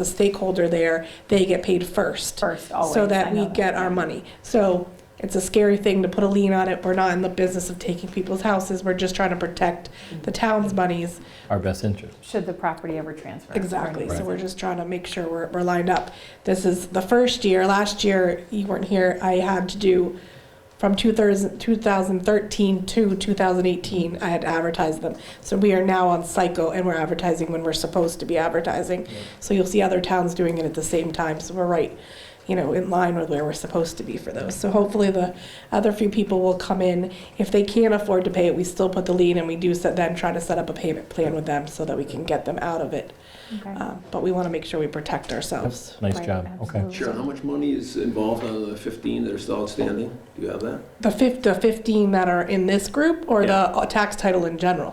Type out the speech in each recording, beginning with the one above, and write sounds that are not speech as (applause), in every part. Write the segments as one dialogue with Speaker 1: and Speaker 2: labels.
Speaker 1: the stakeholder there, they get paid first.
Speaker 2: First,
Speaker 1: So
Speaker 2: always, I
Speaker 1: that we
Speaker 2: know that,
Speaker 1: get our
Speaker 2: yeah.
Speaker 1: money. So it's a scary thing to put a lien on it. We're not in the business of taking people's houses. We're just trying to protect the town's monies.
Speaker 3: our best interest.
Speaker 2: Should the property ever transfer?
Speaker 1: Exactly. So
Speaker 3: Right.
Speaker 1: we're just trying to make sure we're, we're lined up. This is the first year. Last year, you weren't here. I had to do from 2000 2013 to 2018, I had to advertise them. So we are now on cycle and we're advertising when we're supposed to be advertising. So you'll see other towns doing it at the same time. So we're right, you know, in line with where we're supposed to be for those. So hopefully the other few people will come in. If they can't afford to pay it, we still put the lien and we do set, then try to set up a payment plan with them so that we can get them out of it.
Speaker 2: Okay.
Speaker 1: Um, But we want to make sure we protect ourselves.
Speaker 3: Nice
Speaker 2: Right,
Speaker 3: job. Okay.
Speaker 2: absolutely.
Speaker 4: Sharon, how much money is involved out of the 15 that are still outstanding? Do you have that?
Speaker 1: The fif- the 15 that are in this group or the uh, tax title in general?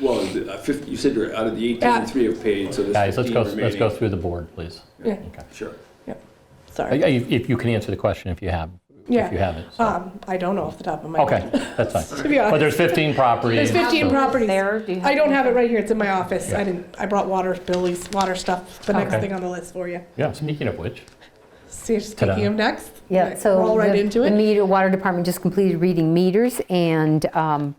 Speaker 4: Well, the, uh, 50 you said you're out of the 18,
Speaker 1: Yeah.
Speaker 4: and three have paid, so there's
Speaker 3: Guys, let's
Speaker 4: 15
Speaker 3: go, let's go
Speaker 4: remaining.
Speaker 3: through the board, please.
Speaker 1: Yeah,
Speaker 3: Okay.
Speaker 4: Sure.
Speaker 3: Uh,
Speaker 1: sorry.
Speaker 3: yeah, If if you can answer the question, if you have, if
Speaker 1: Yeah.
Speaker 3: you have it. so.
Speaker 1: Um, I don't know off the top of my
Speaker 3: Okay,
Speaker 1: head.
Speaker 3: that's fine.
Speaker 1: To be
Speaker 3: But
Speaker 1: honest,
Speaker 3: there's 15 properties.
Speaker 1: There's 15
Speaker 3: so-
Speaker 1: properties.
Speaker 2: There, do you have?
Speaker 1: I don't
Speaker 2: any-
Speaker 1: have it right here. It's in my office. I
Speaker 3: Yeah.
Speaker 1: didn't, I brought water, Billy's water stuff, the next
Speaker 3: Okay.
Speaker 1: thing on the list for you.
Speaker 3: Yeah, speaking of which,
Speaker 1: See,
Speaker 3: Ta-da.
Speaker 1: speaking of next.
Speaker 5: Yeah,
Speaker 1: right,
Speaker 5: so
Speaker 1: Roll right
Speaker 5: the-
Speaker 1: into
Speaker 5: The
Speaker 1: it.
Speaker 5: meter, water department just completed reading meters, and um,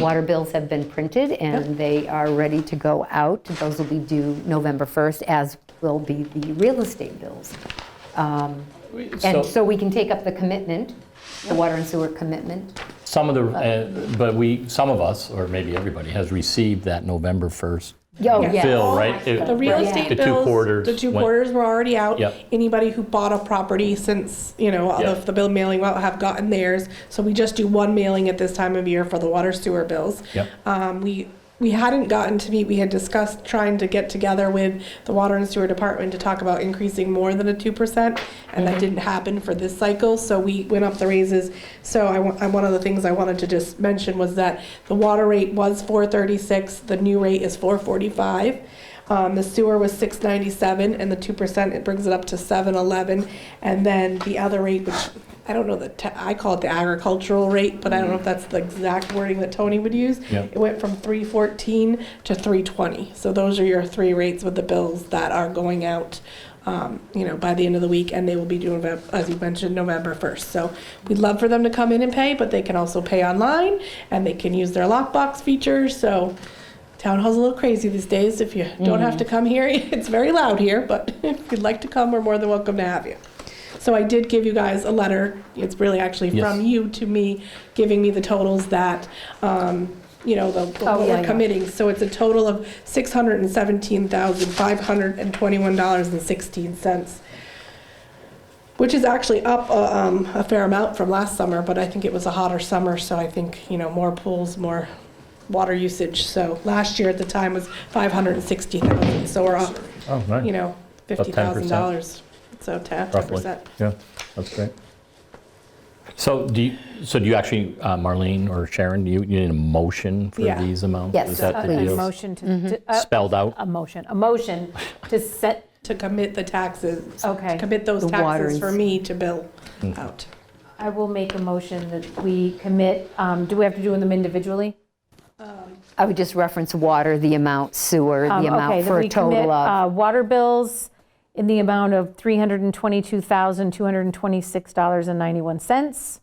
Speaker 5: water bills have been printed, and they are ready to go out. Those will be due November 1st, as will be the real estate bills. Um,
Speaker 3: so
Speaker 5: And so we can take up the commitment, the water and sewer commitment.
Speaker 3: some of the, uh, but we, some of us, or maybe everybody, has received that November 1st
Speaker 5: Oh,
Speaker 1: Yeah.
Speaker 5: yes.
Speaker 3: bill, right? It-
Speaker 1: The real
Speaker 3: right,
Speaker 1: estate
Speaker 3: the two
Speaker 1: bills,
Speaker 3: quarters
Speaker 1: the two
Speaker 3: went-
Speaker 1: quarters were already out.
Speaker 3: Yep.
Speaker 1: Anybody who bought a property since, you know, all
Speaker 3: Yep.
Speaker 1: of the bill mailing will have gotten theirs. So we just do one mailing at this time of year for the water sewer bills.
Speaker 3: Yep.
Speaker 1: Um, we, we hadn't gotten to meet, we had discussed trying to get together with the water and sewer department to talk about increasing more than a two percent. And that didn't happen for this cycle, so we went up the raises. So I, wa- I- one of the things I wanted to just mention was that the water rate was four thirty-six, the new rate is four forty-five. Um, the sewer was six ninety-seven, and the two percent, it brings it up to seven eleven. And then the other rate, which, I don't know, the, ta- I call it the agricultural rate, but I don't know if that's the exact wording that Tony would use.
Speaker 3: Yeah.
Speaker 1: It went from three fourteen to three twenty. So those are your three rates with the bills that are going out, um, you know, by the end of the week, and they will be due, Novem- as you mentioned, November first. So we'd love for them to come in and pay, but they can also pay online, and they can use their lockbox feature, so town hall's a little crazy these days. If you don't have to come here, (laughs) it's very loud here, but (laughs) if you'd like to come, we're more than welcome to have you. So I did give you guys a letter. It's really actually
Speaker 3: Yes.
Speaker 1: from you to me, giving me the totals that, um, you know, the, the-
Speaker 5: Oh,
Speaker 1: what
Speaker 5: yeah,
Speaker 1: we're
Speaker 5: yeah.
Speaker 1: committing. So it's a total of six hundred and seventeen thousand, five hundred and twenty-one dollars and sixteen cents. Which is actually up, uh, um, a fair amount from last summer, but I think it was a hotter summer, so I think, you know, more pools, more water usage. So last year at the time was five hundred and sixty thousand, so we're up,
Speaker 3: Oh,
Speaker 1: you
Speaker 3: nice,
Speaker 1: know,
Speaker 3: About
Speaker 1: fifty
Speaker 3: 10%.
Speaker 1: thousand dollars. So ten
Speaker 3: roughly.
Speaker 1: percent.
Speaker 3: Yeah, that's great. So do you, so do you actually, uh, Marlene or Sharon, do you you need a motion for
Speaker 1: Yeah.
Speaker 3: these amounts?
Speaker 5: Yes,
Speaker 3: Is
Speaker 2: A
Speaker 3: that the
Speaker 2: Uh, a
Speaker 3: deal?
Speaker 2: motion
Speaker 5: Mm-hmm.
Speaker 2: Uh, to- to, a-
Speaker 3: Spelled out?
Speaker 2: a motion, a motion to set,
Speaker 1: to commit the
Speaker 5: Oh,
Speaker 1: taxes.
Speaker 2: Okay.
Speaker 1: To commit those
Speaker 5: The water
Speaker 1: taxes
Speaker 5: and-
Speaker 1: for me to bill out.
Speaker 2: I will make a motion that we commit, um, do we have to do them individually?
Speaker 5: I would just reference water, the amount, sewer,
Speaker 2: Um,
Speaker 5: the
Speaker 2: okay,
Speaker 5: amount
Speaker 2: that
Speaker 5: for
Speaker 2: we
Speaker 5: a
Speaker 2: commit,
Speaker 5: total of.
Speaker 2: uh, Water bills in the amount of $322,226.91.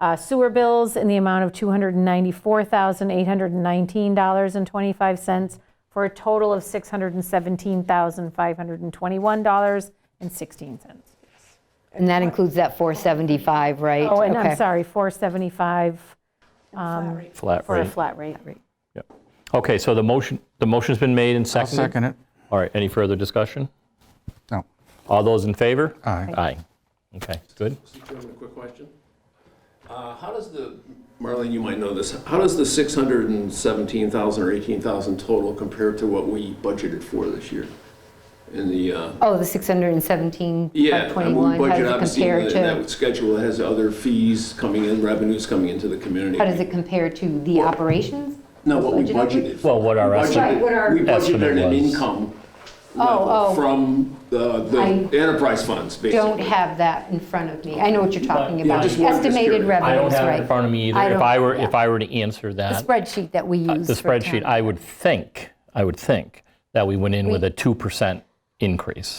Speaker 2: Uh, Sewer bills in the amount of $294,819.25, for a total of $617,521.16.
Speaker 5: And that includes that 475, right?
Speaker 2: Oh, and I'm
Speaker 5: Okay.
Speaker 2: sorry, 475
Speaker 1: Flat rate.
Speaker 3: Flat
Speaker 2: for a
Speaker 3: rate?
Speaker 2: flat rate.
Speaker 3: Okay, so the motion, the motion's been made and
Speaker 6: I'll
Speaker 3: seconded?
Speaker 6: second it.
Speaker 3: All right, any further discussion?
Speaker 6: No.
Speaker 3: All those in favor?
Speaker 6: Aye.
Speaker 3: Aye. Okay, good.
Speaker 4: Mr. Chairman, a quick question. Uh, How does the, Marlene, you might know this, how does the 617,000 or 18,000 total compare to what we budgeted for this year? In the, uh,
Speaker 5: Oh, the 617,
Speaker 4: yeah, and when
Speaker 5: 521, how
Speaker 4: we budget,
Speaker 5: does it
Speaker 4: obviously,
Speaker 5: compare
Speaker 4: in
Speaker 5: to?
Speaker 4: that schedule that has other fees coming in, revenues coming into the community.
Speaker 5: How does it compare to the operations?
Speaker 4: No, what we
Speaker 5: Budgeted?
Speaker 4: budgeted. for.
Speaker 3: Well, what our
Speaker 4: We budgeted-
Speaker 3: estimate-
Speaker 5: Right, what our-
Speaker 4: We budgeted
Speaker 3: Estimate
Speaker 4: an
Speaker 3: was.
Speaker 4: income
Speaker 5: oh.
Speaker 4: level from the the
Speaker 5: I
Speaker 4: enterprise funds, basically.
Speaker 5: Don't have that in front of me. I know what you're talking
Speaker 4: Yeah,
Speaker 5: about.
Speaker 4: just wanted to
Speaker 5: Estimated
Speaker 4: secure it.
Speaker 3: I don't
Speaker 5: revenues,
Speaker 3: have it in
Speaker 5: right?
Speaker 3: front of me
Speaker 5: I
Speaker 3: either. If
Speaker 5: don't-
Speaker 3: I were,
Speaker 5: yeah.
Speaker 3: if I were to answer
Speaker 5: The
Speaker 3: that,
Speaker 5: spreadsheet that we
Speaker 3: uh,
Speaker 5: use
Speaker 3: the
Speaker 5: for town.
Speaker 3: spreadsheet, I would think, I would think that we went in with a 2% increase.